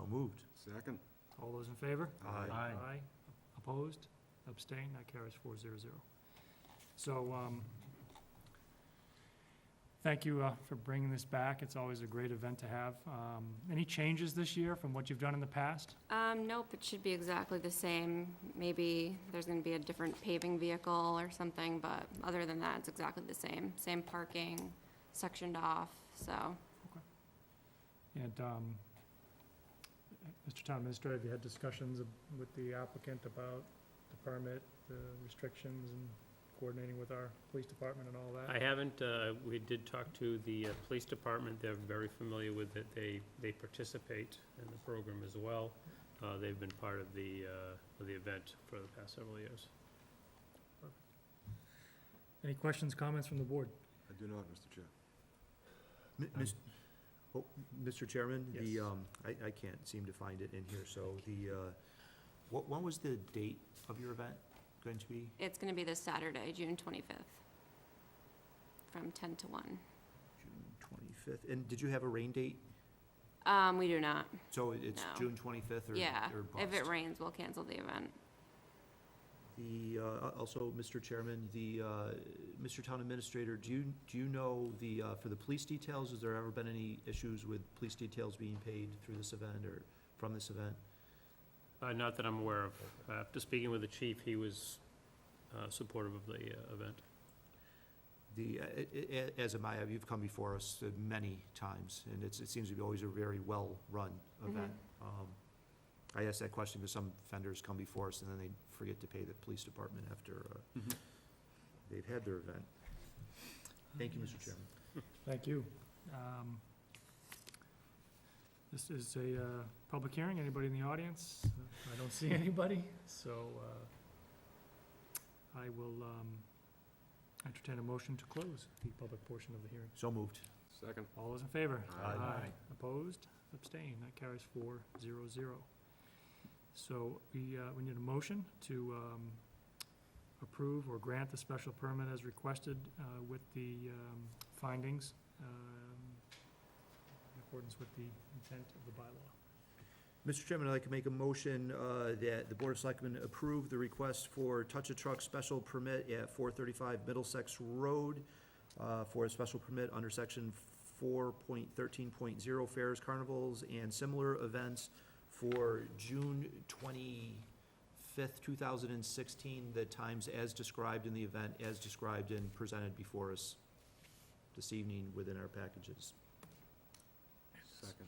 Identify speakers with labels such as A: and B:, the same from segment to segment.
A: Oh, moved.
B: Second?
C: All those in favor?
A: Aye.
C: Aye. Opposed? Abstained? That carries four zero zero. So, um, thank you, uh, for bringing this back. It's always a great event to have. Um, any changes this year from what you've done in the past?
D: Um, nope, it should be exactly the same. Maybe there's gonna be a different paving vehicle or something, but other than that, it's exactly the same. Same parking, sectioned off, so.
C: And, um, Mr. Town Administrator, have you had discussions with the applicant about the permit, the restrictions, and coordinating with our police department and all that?
E: I haven't, uh, we did talk to the uh, police department, they're very familiar with it, they, they participate in the program as well. Uh, They've been part of the, uh, of the event for the past several years.
C: Any questions, comments from the board?
B: I do not, Mr. Chair.
A: M- mis- oh, Mr. Chairman, the,
E: Yes.
A: um, I, I can't seem to find it in here, so the, uh, what, when was the date of your event going to be?
D: It's gonna be this Saturday, June twenty-fifth, from ten to one.
A: June twenty-fifth, and did you have a rain date?
D: Um, we do not,
A: So it- it's
D: No.
A: June twenty-fifth or,
D: yeah.
A: or
D: If it
A: bust.
D: rains, we'll cancel the event.
A: The, uh, al- also, Mr. Chairman, the, uh, Mr. Town Administrator, do you, do you know the, uh, for the police details, has there ever been any issues with police details being paid through this event or from this event?
E: Uh, Not that I'm aware of. After speaking with the chief, he was uh, supportive of the uh, event.
A: The, uh, a- a- a- as am I, you've come before us uh, many times, and it's, it seems to be always a very well-run event. Um, I asked that question because some vendors come before us and then they forget to pay the police department after uh,
B: Mhm.
A: they've had their event. Thank you, Mr.
C: Yes.
A: Chairman.
C: Thank you. Um, This is a uh, public hearing. Anybody in the audience? I don't see anybody, so uh, I will um, entertain a motion to close the public portion of the hearing.
A: So moved.
B: Second?
C: All those in favor?
B: Aye.
C: Opposed? Abstained? That carries four zero zero. So we, uh, we need a motion to um, approve or grant the special permit as requested uh, with the um, findings um, in accordance with the intent of the bylaw.
A: Mr. Chairman, I'd like to make a motion uh, that the Board of Selectmen approve the request for Touch a Truck special permit at 435 Middlesex Road uh, for a special permit under Section 4.13.0 Fairs, Carnivals, and Similar Events for June 25th, 2016, the times as described in the event, as described and presented before us this evening within our packages.
B: Second.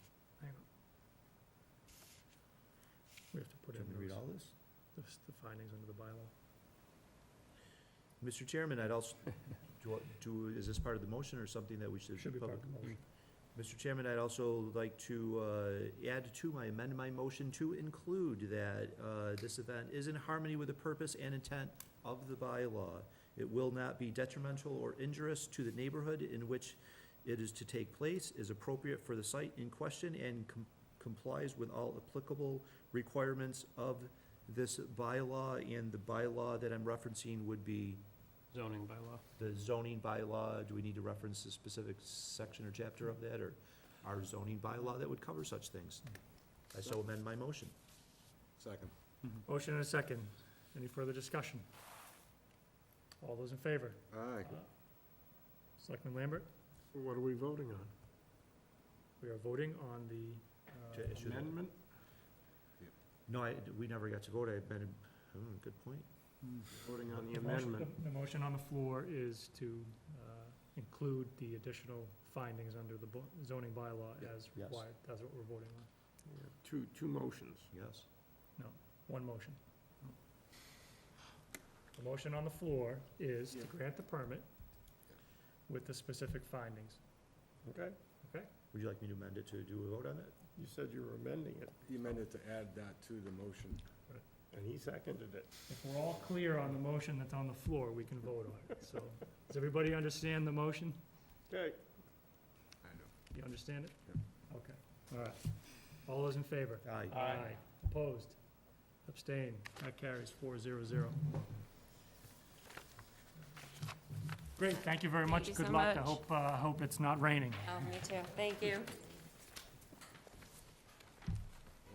C: We have to put
A: Do
C: in
A: you want me to read
C: those-
A: all this?
C: those- the findings under the bylaw.
A: Mr. Chairman, I'd also, do, I- do, is this part of the motion or something that we should?
C: Should be part of the
A: public-
C: motion.
A: Mr. Chairman, I'd also like to, uh, add to my, amend my motion to include that, uh, this event is in harmony with the purpose and intent of the bylaw. It will not be detrimental or injurious to the neighborhood in which it is to take place, is appropriate for the site in question, and com- complies with all applicable requirements of this bylaw, and the bylaw that I'm referencing would be
E: Zoning bylaw.
A: the zoning bylaw, do we need to reference a specific section or chapter of that, or our zoning bylaw that would cover such things? I so amend my motion.
B: Second.
C: Motion and a second. Any further discussion? All those in favor?
B: Aye.
C: Selectman Lambert?
B: What are we voting on?
C: We are voting on the
A: To
C: uh,
A: issue the- No, I, we never got to vote, I amended, oh, good point.
B: Voting on the
C: The motion-
B: amendment.
C: The motion on the floor is to uh, include the additional findings under the bo- zoning bylaw
A: Yeah,
C: as
A: yes.
C: required. That's what we're voting on.
B: Yeah, Two, two motions.
A: Yes.
C: One motion. The motion on the floor is to
B: Yeah.
C: grant the permit with the specific findings.
A: Would you like me to amend it to do a vote on it?
F: You said you were amending it,
B: He amended to add that to the motion.
F: and he seconded it.
C: If we're all clear on the motion that's on the floor, we can vote on it. So, does everybody understand the motion?
F: Okay,
B: I know.
C: You understand it?
B: Yep.
C: Okay, all right. All those in favor?
A: Aye.
C: Aye. Opposed? Abstained? That carries four zero zero. Great, thank you very
D: Thank
C: much.
D: you
C: Good
D: so
C: luck. I
D: much.
C: hope, uh, I hope it's not raining.
D: Oh, me too. Thank you.